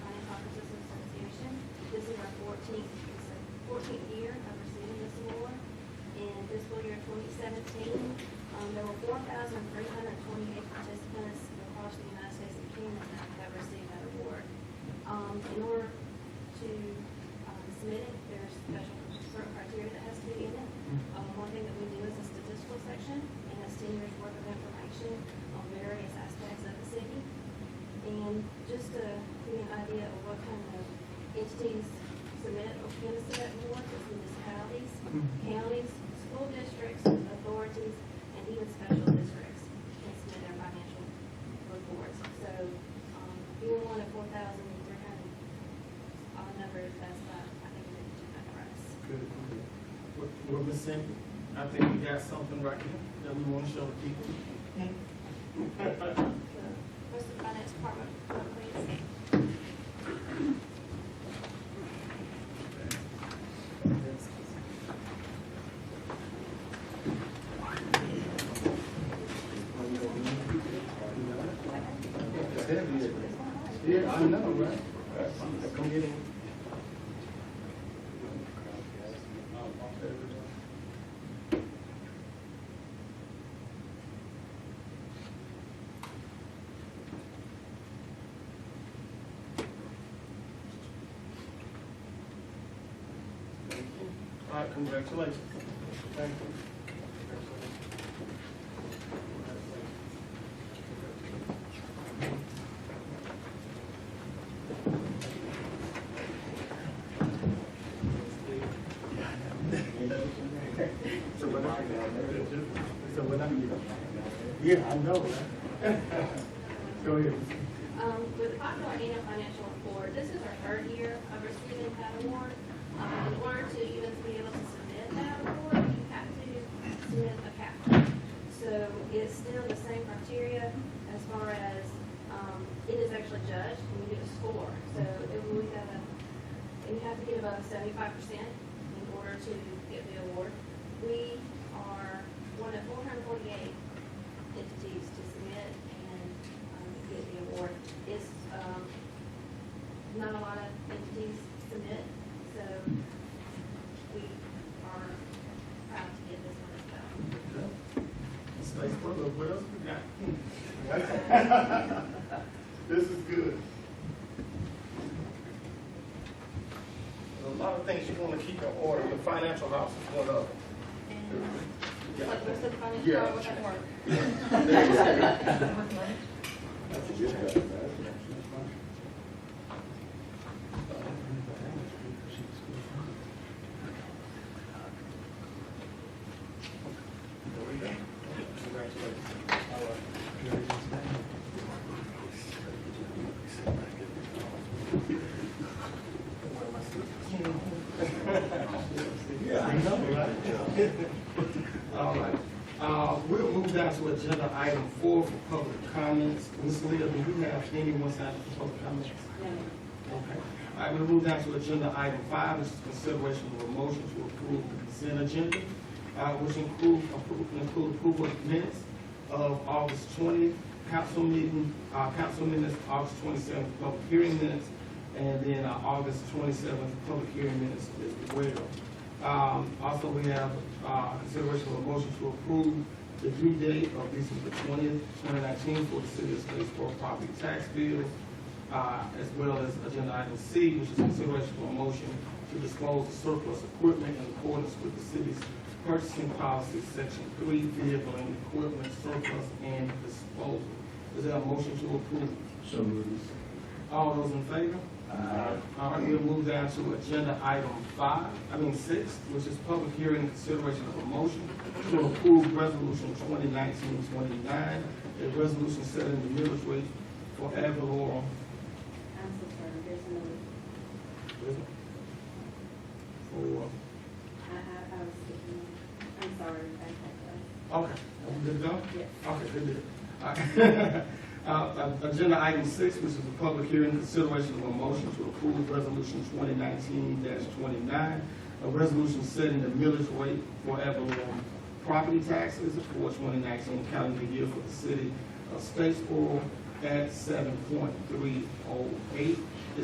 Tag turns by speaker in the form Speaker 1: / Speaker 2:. Speaker 1: 14th, it's the 14th year of receiving this award. In fiscal year 2017, um, there were 4,328 participants across the United States and Kingdom that that received that award. Um, In order to um, submit it, there's special certain criteria that has to be in it. Um, One thing that we do is a statistical section, and that's 10 years' worth of information on various aspects of the city. And just to give you an idea of what kind of entities submit or can submit awards, it's municipalities, counties, school districts, authorities, and even special districts can submit their financial reports. So, um, being one of four thousand, they're kind of, odd numbers, that's, uh, I think, it's kind of us.
Speaker 2: Good. We're- We're missing, I think we got something right here that we want to show the people.
Speaker 1: So, what's the finance department, please?
Speaker 2: It's heavy. Yeah, I know, right? Come get in. Thank you. All right, congratulations. Thank you. So when I, so when I, yeah, I know, right? Go ahead.
Speaker 1: Um, with the Popular Annual Financial Report, this is our third year of receiving that award. Um, in order to even be able to submit that award, you have to submit a cap. So it's still the same criteria as far as, um, it is actually judged and you get a score. So it will have a, you have to get above seventy-five percent in order to get the award. We are one of four hundred forty-eight entities to submit and um, get the award. It's, um, not a lot of entities submit, so we are proud to get this one as well.
Speaker 2: Space Butler, what else we got? This is good. There's a lot of things you wanna keep in order, your financial house is one of them.
Speaker 1: And,
Speaker 2: Yeah.
Speaker 1: like, what's the finance
Speaker 2: Yeah.
Speaker 1: part, what's that work?
Speaker 2: There we go. Congratulations. All right. Yeah, I know, right? All right, uh, we'll move down to agenda item four for public comments. Ms. Leah, do you have anyone signed up for public comments? Okay, all right, we'll move down to agenda item five, this is consideration of a motion to approve the consent agenda, uh, which include, appro- include approval of minutes of August twentieth, council meeting, uh, council minutes, August twenty-seventh, public hearing minutes, and then uh, August twenty-seventh, public hearing minutes as well. Um, also, we have, uh, consideration of a motion to approve the due date of December twentieth, twenty nineteen for the city of Statesboro property tax bill, uh, as well as agenda item C, which is consideration for a motion to dispose of surplus equipment in accordance with the city's purchasing policy, section three, vehicle and equipment surplus and disposal. Is there a motion to approve?
Speaker 3: So moved.
Speaker 2: All those in favor?
Speaker 3: Aye.
Speaker 2: All right, we'll move down to agenda item five, I mean six, which is public hearing and consideration of a motion to approve resolution 2019-29, a resolution setting the millage rate for ad valorem.
Speaker 4: I'm so sorry, there's another,
Speaker 2: For,
Speaker 4: I, I, I was thinking, I'm sorry, I had
Speaker 2: okay, are we good to go?
Speaker 4: to, yes.
Speaker 2: Okay, good deal. All right. Uh, uh, Agenda item six, which is a public hearing, consideration of a motion to approve resolution twenty nineteen twenty-nine, a resolution setting the millage rate for Avalon property taxes for twenty nineteen calendar year for the city of Statesboro at seven point three oh eight.